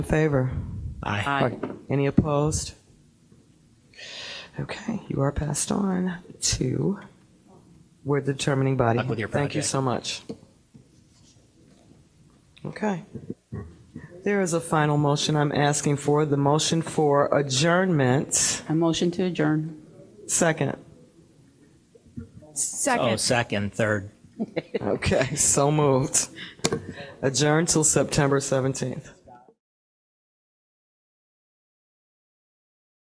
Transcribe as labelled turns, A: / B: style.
A: in favor?
B: Aye.
C: Aye.
A: Any opposed? Okay, you are passed on to, we're the determining body.
B: Up with your
A: Thank you
B: project.
A: so much. Okay. There is a final motion I'm asking for, the motion for adjournment.
C: A motion to adjourn.
A: Second.
B: Oh,
D: Second.
B: second, third.
A: Okay, so moved. Adjourn till September 17th.